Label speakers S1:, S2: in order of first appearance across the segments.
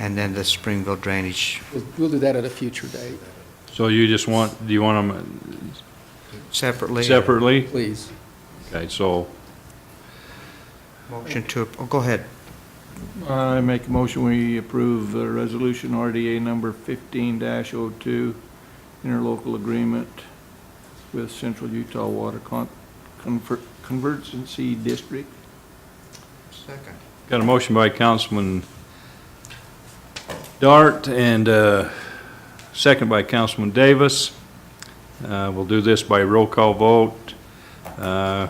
S1: and then the Springville Drainage.
S2: We'll- We'll do that at a future date,
S3: So you just want, do you want them
S1: Separately?
S3: separately?
S2: please.
S3: Okay, so
S1: Motion to, oh, go ahead.
S4: I make a motion, we approve uh, Resolution RDA number 15-02, interlocal agreement with Central Utah Water Con- Conver- Convergency District.
S1: Second.
S3: got a motion by Councilman Dart and uh, second by Councilman Davis. Uh, We'll do this by roll call vote. Uh,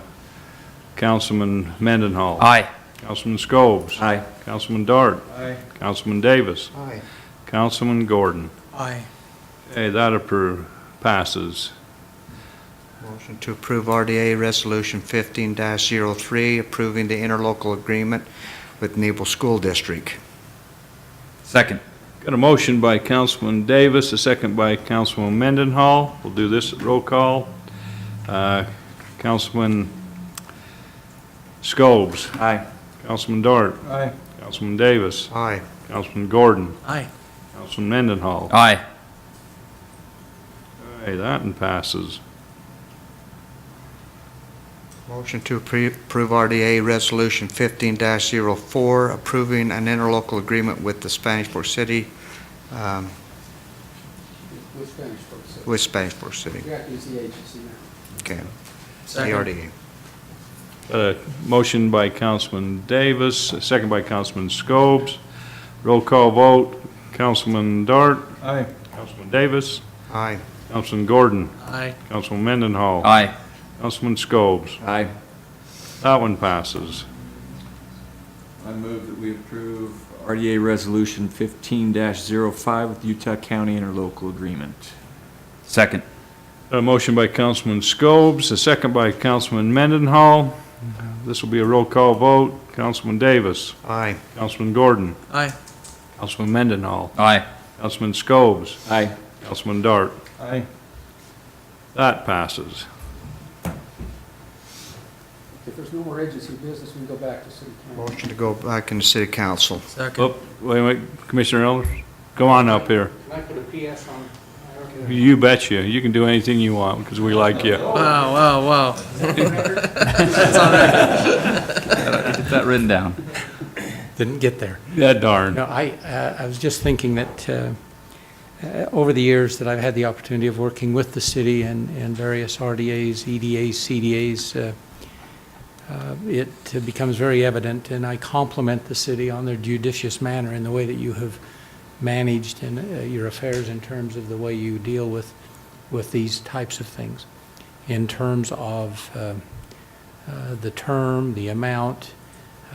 S3: Councilman Mendenhall.
S5: Aye.
S3: Councilman Scobes.
S5: Aye.
S3: Councilman Dart.
S4: Aye.
S3: Councilman Davis.
S1: Aye.
S3: Councilman Gordon.
S5: Aye.
S3: Hey, that appro- passes.
S1: Motion to approve RDA Resolution 15-03, approving the interlocal agreement with Nebo School District.
S5: Second.
S3: Got a motion by Councilman Davis, a second by Councilman Mendenhall. We'll do this at roll call. Uh, Councilman Scobes,
S5: Aye.
S3: Councilman Dart,
S4: Aye.
S3: Councilman Davis,
S1: Aye.
S3: Councilman Gordon,
S5: Aye.
S3: Councilman Mendenhall.
S5: Aye.
S3: Hey, that one passes.
S1: Motion to appre- approve RDA Resolution 15-04, approving an interlocal agreement with the Spanish Fork City, um,
S2: We'll finish first.
S1: with Spanish Fork City.
S2: got to use the agency now.
S1: Okay. The
S5: Second.
S1: RDA.
S3: Got a motion by Councilman Davis, a second by Councilman Scobes. Roll call vote, Councilman Dart,
S4: Aye.
S3: Councilman Davis,
S1: Aye.
S3: Councilman Gordon,
S5: Aye.
S3: Councilman Mendenhall.
S5: Aye.
S3: Councilman Scobes.
S5: Aye.
S3: That one passes.
S6: I move that we approve RDA Resolution 15-05 with Utah County Interlocal Agreement.
S5: Second.
S3: A motion by Councilman Scobes, a second by Councilman Mendenhall. This will be a roll call vote. Councilman Davis,
S1: Aye.
S3: Councilman Gordon,
S5: Aye.
S3: Councilman Mendenhall,
S5: Aye.
S3: Councilman Scobes,
S6: Aye.
S3: Councilman Dart.
S4: Aye.
S3: That passes.
S2: If there's no more agency business, we can go back to city council.
S1: Motion to go back into City Council.
S5: Second.
S3: Oh, Wait, wait, Commissioner Elders, go on up here.
S2: Can I put a PS on?
S3: You betcha. You can do anything you want because we like you.
S5: Wow, wow, wow. That's all right. Get that written down.
S7: Didn't get there.
S3: Yeah, darn.
S7: No, I, uh, I was just thinking that uh, uh, over the years that I've had the opportunity of working with the city and, and various RDAs, EDAs, CDAs, uh, uh, it becomes very evident, and I compliment the city on their judicious manner in the way that you have managed in uh, your affairs in terms of the way you deal with, with these types of things, in terms of uh, uh, the term, the amount,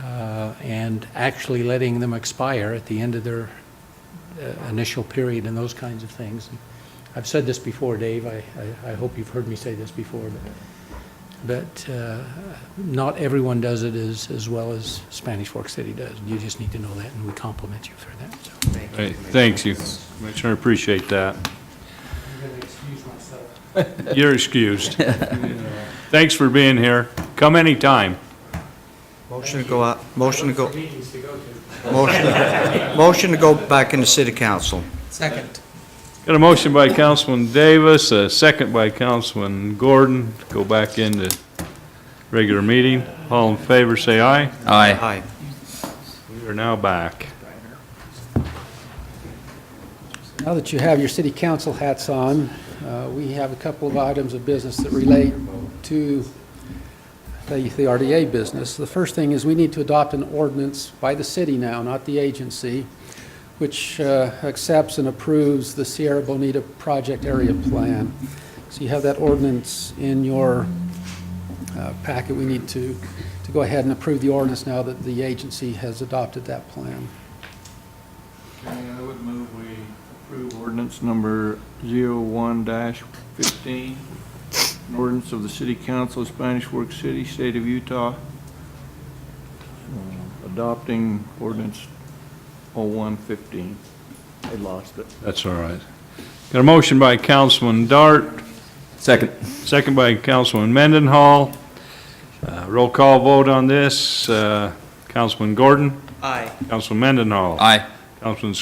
S7: uh, and actually letting them expire at the end of their uh, initial period and those kinds of things. And I've said this before, Dave, I, I I hope you've heard me say this before, but, but uh, not everyone does it as, as well as Spanish Fork City does. You just need to know that, and we compliment you for that, so.
S3: Hey, Thanks you. Commissioner, appreciate that.
S7: I'm going to excuse myself.
S3: You're excused. Thanks for being here. Come anytime.
S1: Motion to go out, motion to go. Motion, motion to go back into City Council.
S5: Second.
S3: Got a motion by Councilman Davis, a second by Councilman Gordon. Go back into regular meeting. All in favor, say aye.
S5: Aye.
S1: Aye.
S3: We are now back.
S2: Now that you have your city council hats on, uh, we have a couple of items of business that relate to the the RDA business. The first thing is we need to adopt an ordinance by the city now, not the agency, which uh, accepts and approves the Sierra Bonita Project Area Plan. So you have that ordinance in your uh, packet. We need to to go ahead and approve the ordinance now that the agency has adopted that plan.
S4: Okay, I would move we approve ordinance number 01-15, an ordinance of the City Council of Spanish Fork City, State of Utah, uh, adopting ordinance 0115. I lost it.
S3: That's all right. Got a motion by Councilman Dart,
S6: Second.
S3: second by Councilman Mendenhall. Uh, Roll call vote on this. Uh, Councilman Gordon? Aye. Councilman Mendenhall?
S5: Aye.
S3: Councilman